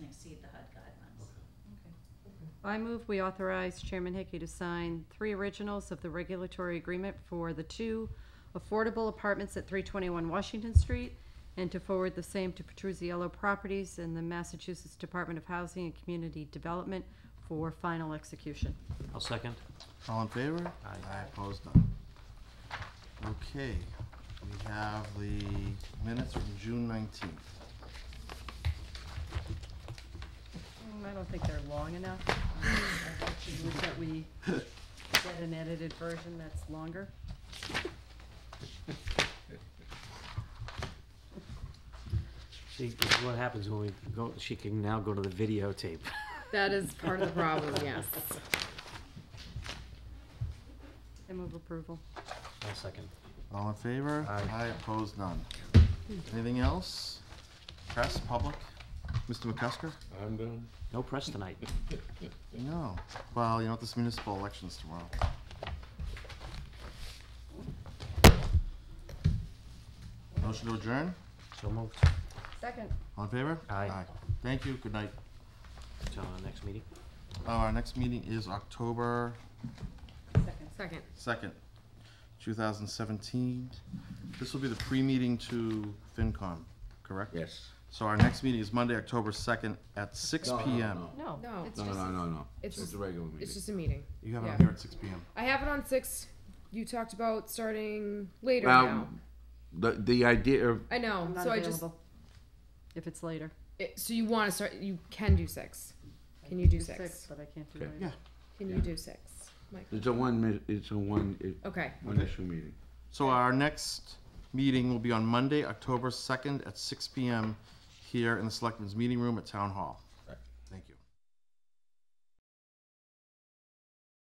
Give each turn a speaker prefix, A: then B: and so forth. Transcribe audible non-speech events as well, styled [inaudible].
A: I move we authorize Chairman Hickey to sign three originals of the regulatory agreement for the two affordable apartments at 321 Washington Street and to forward the same to Petruzziello Properties and the Massachusetts Department of Housing and Community Development for final execution.
B: I'll second.
C: All in favor?
B: Aye.
C: opposed, none. Okay, we have the minutes from June nineteenth.
A: Mm, I don't think they're long enough. Um, I'd like to move that we get an edited version that's longer.
B: See, this is what happens when we go, she can now go to the videotape.
D: [laughs] That is part of the problem, yes.
A: I move approval.
B: I'll second.
C: All in favor?
B: Aye.
C: opposed, none. Anything else? Press, public? Mr. McCusker?
E: I'm done.
B: No press tonight.
C: No. Well, you know, what? this municipal election's tomorrow. Motion to adjourn?
B: So moved.
A: Second.
C: All in favor?
B: Aye.
C: Thank you, good night.
B: Till our next meeting.
C: Uh, Our next meeting is October
A: Second.
D: Second.
C: second, two thousand seventeen. This will be the pre-meeting to FinCom, correct?
E: Yes.
C: So our next meeting is Monday, October second at six
E: No, no,
C: P M.
E: no.
A: No.
D: No.
A: it's
E: No, no,
A: just-
E: no, no, no.
D: It's
E: It's
D: just-
E: a regular meeting.
D: It's just a meeting.
C: You have it
D: Yeah.
C: on here at six P M.
D: I have it on six. You talked about starting later
E: Well,
D: now.
E: The, the idea of,
D: I know.
A: I'm not
D: so I just.
A: available. If it's later.
D: It, so you want to start? You can do six. Can you do six?
A: But I can't do
E: Okay.
A: later.
C: Yeah.
D: Can you
E: Yeah.
D: do six? Mike.
E: it's a one, mi- it's a one, it,
D: Okay.
E: one issue meeting.
C: So our next meeting will be on Monday, October second at six P M here in the Selectmen's Meeting Room at Town Hall.